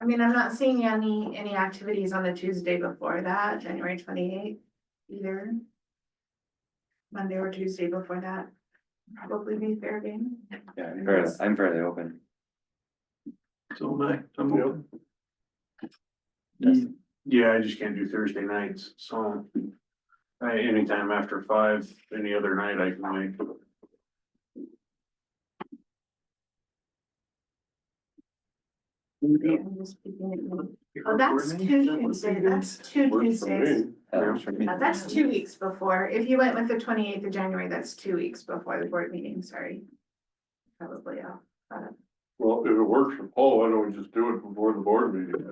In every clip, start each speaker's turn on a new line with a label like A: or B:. A: I mean, I'm not seeing any, any activities on the Tuesday before that, January twenty eighth either. Monday or Tuesday before that, probably be fair game.
B: Yeah, I'm fairly, I'm fairly open.
C: So am I, I'm open.
B: Justin?
D: Yeah, I just can't do Thursday nights, so. I, anytime after five, any other night I can make.
A: Yeah, I'm just picking it up. Oh, that's two Tuesday, that's two Tuesdays.
B: Uh, sure.
A: Uh, That's two weeks before. If you went with the twenty eighth of January, that's two weeks before the board meeting, sorry. Probably, off.
E: Well, if it works for Paul, why don't we just do it before the board meeting,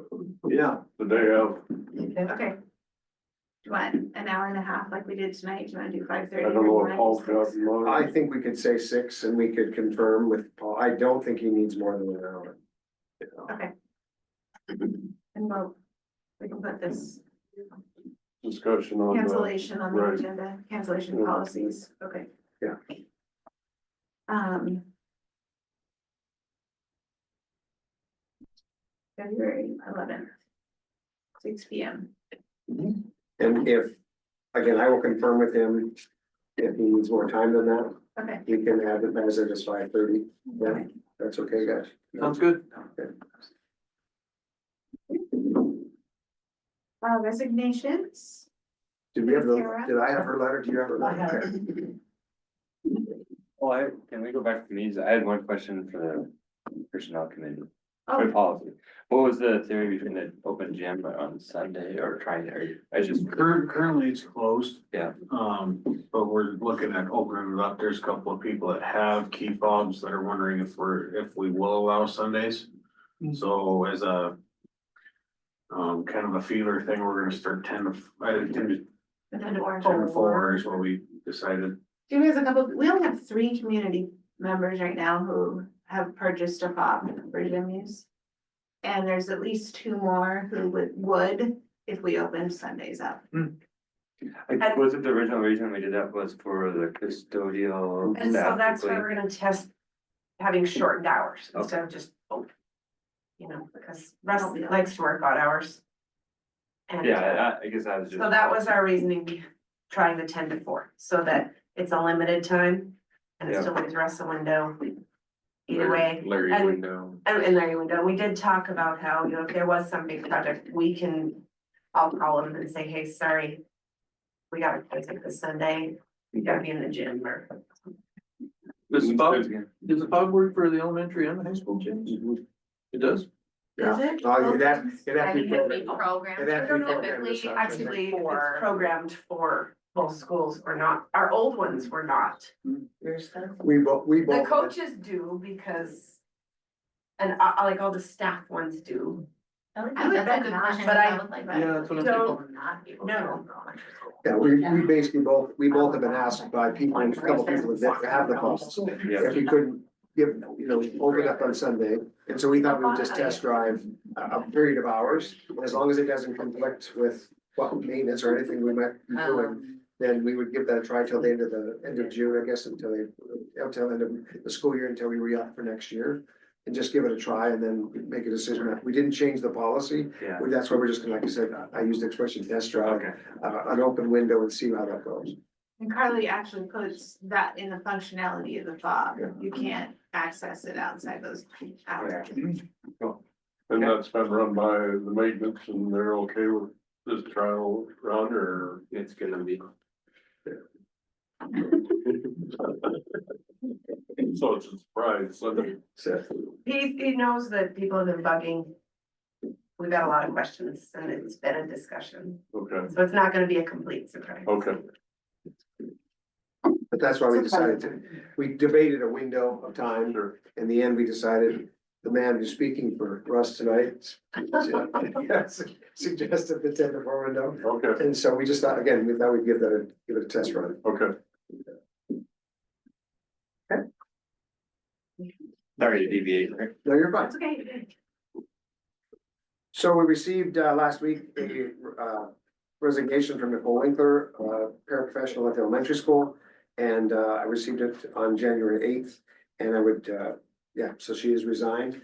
C: Yeah,
E: the day of?
A: okay. Do you want an hour and a half like we did tonight? Do you want to do five
E: I
A: thirty?
E: don't know if Paul's got in
F: I
E: mind.
F: think we could say six and we could confirm with Paul. I don't think he needs more than an hour.
A: And we'll, we can put this
E: Discussion on that.
A: cancellation on the
E: right.
A: agenda, cancellation
E: Yeah.
A: policies, okay.
F: Yeah.
A: Um. February eleventh. Six P M.
F: And if, again, I will confirm with him. If he needs more time than that,
A: Okay.
F: he can have it as it is five thirty. Yeah,
A: Okay.
F: that's okay, guys.
D: Um,
C: sounds good.
A: Uh, resignations.
F: Did we have the,
A: Kara?
F: did I have her letter? Do you have her letter? Okay.
B: Oh, I, can we go back to these? I had one question for the personnel committee, for
A: Oh,
B: policy. What was the theory between the open gym on Sunday or trying to, I just,
D: Cur- currently it's closed.
B: Yeah.
D: Um, but we're looking at opening it up. There's a couple of people that have key fobs that are wondering if we're, if we will allow Sundays. So as a. Um, kind of a feeler thing, we're gonna start ten to, I ten to,
A: and then orange.
D: ten to four is what we decided.
A: Do we have a couple, we only have three community members right now who have purchased a fob for gym use. And there's at least two more who would, would if we opened Sundays up.
B: I- was it the original reason we did that was for the custodial
G: And so
B: staff?
G: that's why
B: like,
G: we're gonna test having shortened hours instead of just, open, you know, because Russ likes to work odd hours. And uh,
B: Yeah, I, I guess I was just.
G: so that was our reasoning, trying the ten to four, so that it's a limited time and it
B: Yeah.
G: still leaves Russ a window. Either way,
B: Larry
G: and-
B: window.
G: and and there you go, we did talk about how, you know, if there was some big project, we can, I'll call him and say, hey, sorry. We gotta place it this Sunday, we gotta be in the gym or
C: Does the fob, does the fob work for the elementary and the high school gyms? It does?
F: Yeah.
A: Is it?
F: Oh, you'd have, it'd have to be.
A: I think it'd be
F: programmed.
A: programmed.
F: It'd have to be
G: I don't know if
F: programmed as
G: we
F: such, I think.
G: actually, if
A: For-
G: it's programmed for both schools or not, our old ones were not.
F: We both, we
G: The
F: both.
G: coaches do because, and uh, uh, like all the staff ones do,
A: I would bet not,
G: but I-
C: Yeah, that's what I'm
G: So-
C: thinking.
G: no.
F: Yeah, we, we basically both, we both have been asked by people, a couple people that have the costs.
B: Yeah.
F: If we couldn't give, you know, open up on Sunday, and so we thought we would just test drive a, a period of hours. As long as it doesn't conflict with what maintenance or anything we might be
A: Uh-huh.
F: doing,
A: Um,
F: then we would give that a try till the end of the, end of June, I guess, until they, until the end of the school year, until we re-up for next year. And just give it a try and then make a decision. We didn't change the policy,
B: Yeah,
F: Well, That's why we're just gonna, like I said, I- I used the expression test drive,
B: okay.
F: uh, an open window and see how that goes.
A: And Carly actually puts that in the functionality of the fob.
F: Yeah.
A: You can't access it outside those hours.
E: And that's been run by the maintenance and they're okay with this trial run or?
B: It's gonna be.
E: So it's a surprise, so the-
F: So,
G: He, he knows that people have been bugging. We've got a lot of questions and it's been a discussion,
E: okay,
G: so it's not gonna be a complete surprise.
E: okay.
F: but that's why we decided to, we debated a window of time.
E: Sure.
F: In the end, we decided the man who's speaking for Russ tonight suggested the ten to four window.
E: Okay,
F: And so we just thought, again, we thought we'd give that, a give it a test run.
E: okay.
B: Sorry to deviate.
F: No, you're fine.
A: It's okay.
F: So we received uh last week a uh resignation from Nicole Winkler, uh paraprofessional at the elementary school. And uh I received it on January eighth and I would, uh, yeah, so she has resigned.